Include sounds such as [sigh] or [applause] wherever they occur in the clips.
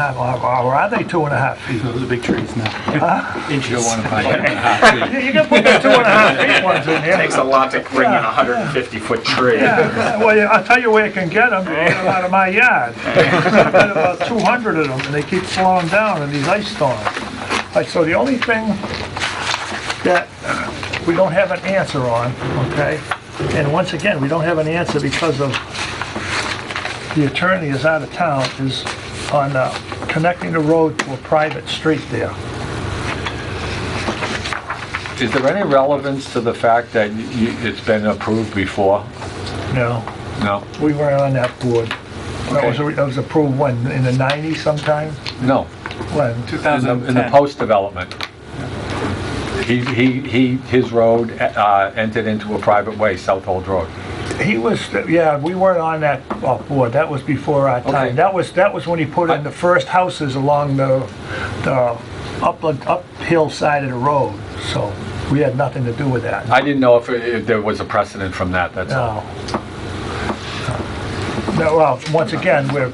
half hour, or are they two and a half feet? Those are big trees now. You don't want to buy [laughs] You you can put the two and a [laughs] half feet ones in here. Takes a lot to bring in a 150-foot tree. Yeah, well, yeah, I'll tell you where you can get them, out of my [laughs] yard. I've got about 200 of them, and they keep slowing down in these ice storms. Like, So the only thing that we don't have an answer on, okay? And once again, we don't have an answer because of the attorney is out of town, is on uh, connecting the road to a private street there. Is there any relevance to the fact that you- it's been approved before? No, No? we weren't on that board. That was, that was approved when, in the 90s sometime? No. When? In the- In the 2010. post-development. He, he, he, his road uh, entered into a private way, South Old Road. He was, yeah, we weren't on that uh, board, that was before our Okay. time. That was, that was when he put in the first houses along the, the upland, uphill side of the road, so we had nothing to do with that. I didn't know if, if there was a precedent from that, that's all. No. No, well, once again, we're,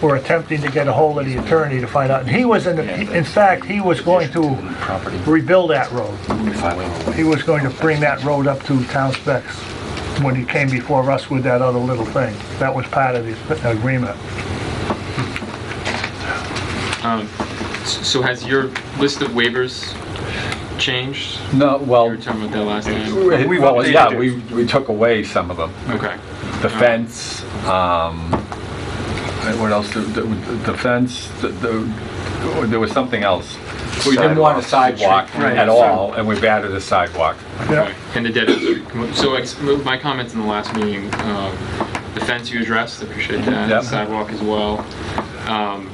we're attempting to get a hold of the attorney to find out, and he was in, the- in fact, he was going to Property. rebuild that road. Five. He was going to bring that road up to town specs when he came before us with that other little thing. That was part of the agreement. So has your list of waivers changed? No, well, You were talking about that last time. We've well, yeah, updated it. we, we took away some of them. Okay. The fence, um, and what else, the, the- the fence, the- the, there was something else. We didn't want a sidewalk at all, and we've added a sidewalk. Yeah, And the dead end. So ex- my comments in the last meeting, um, the fence you addressed, appreciate that. Yep. Sidewalk as well. Um,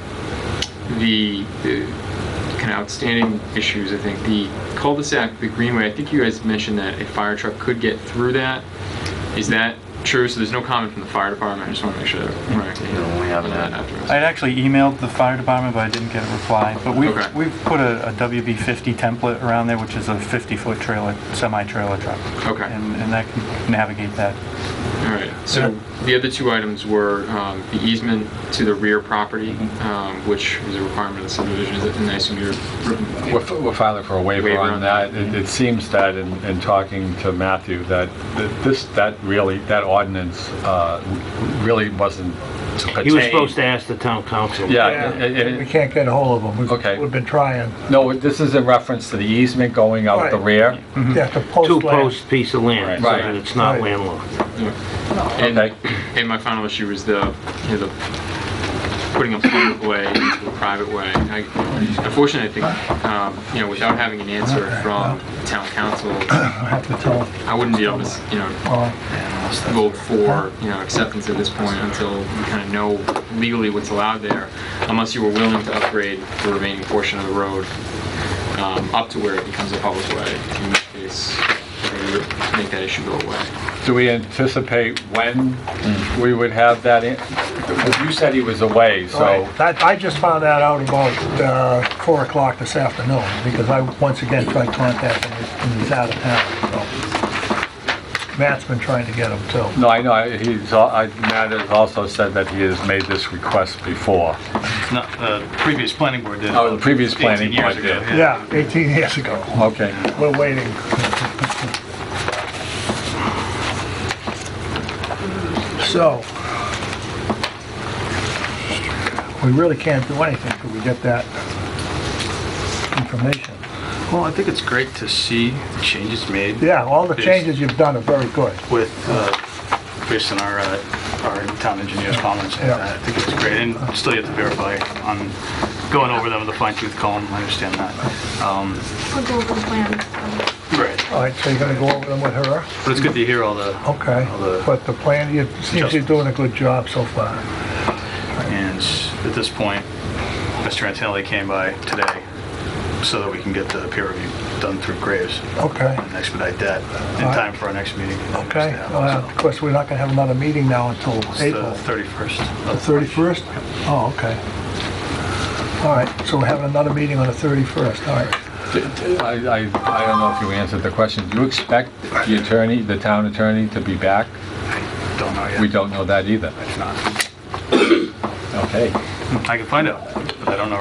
The uh, kind of outstanding issues, I think, the cul-de-sac, the greenway, I think you guys mentioned that a fire truck could get through that. Is that true? So there's no comment from the fire department? I just want to make sure. No, we haven't had- I had actually emailed the fire department, but I didn't get a reply. But we've, Okay. we've put a a WB50 template around there, which is a 50-foot trailer, semi-trailer truck. Okay. And and that can navigate that. All right, so the other two items were um, the easement to the rear property, um, which is a requirement of the subdivision, Is it- and I assume you're, We're f- we're filing for a waiver Waiver on on that. It it seems that, in in talking to Matthew, that th- this, that really, that ordinance uh, really wasn't He was pertained. supposed to ask the town council. Yeah, it- it- We can't get a hold of them. Uh, Okay. Mm-hmm. We've been trying, no, this is in reference to the easement going out the Right. rear. yeah, to post land. Two-post piece of land, so Right. that it's not Right. landlocked. and, Okay. and my final issue was the, you know, the putting a public way into a private way. I- Unfortunately, I think, um, you know, without having an answer from town council, I have to tell them. I wouldn't be able to, s- you know, Uh, vote for, you know, acceptance at this point until we kind of know legally what's allowed there, unless you were willing to upgrade the remaining portion of the road um, up to where it becomes a public way, in which case, we would make that issue go away. Do we anticipate when we would have that? in- because You said he was away, so Right. I I just found that out about uh, 4 o'clock this afternoon, because I once again tried contacting him, and he's out of town, so. Matt's been trying to get him too. No, I know, I- he's, al- I- Matt has also said that he has made this request before. No, the uh, previous planning board did. Oh, the previous 18 planning years board ago, did. Yeah, 18 years ago. Okay. We're waiting. So, we really can't do anything till we get that information. Well, I think it's great to see the changes made Yeah, all the changes you've done are very good. with, uh, based on our, uh, our town engineer's comments. Yeah. I think it's great, and still yet to verify on going over them with a fine tooth comb, I understand that. Um, I'll go over the plan. Right, All right, so you're gonna go over them with her? but it's good to hear all the, Okay, All the- but the plan, you, seems you're doing a good job so far. and at this point, Mr. Antonelli came by today so that we can get the peer review done through Graves Okay, and expedite that in Alright. time for our next meeting. okay. Uh, Of course, we're not gonna have another meeting now until It's uh, the April. 31st. The of 31st? Oh, okay. All right, so we're having another meeting on the 31st, all right. D- d- I, I I don't know if you answered the question. Do you expect the attorney, the town attorney, to be back? March. Don't know yet. We don't know that either. It's not. Okay. I can find out. I don't know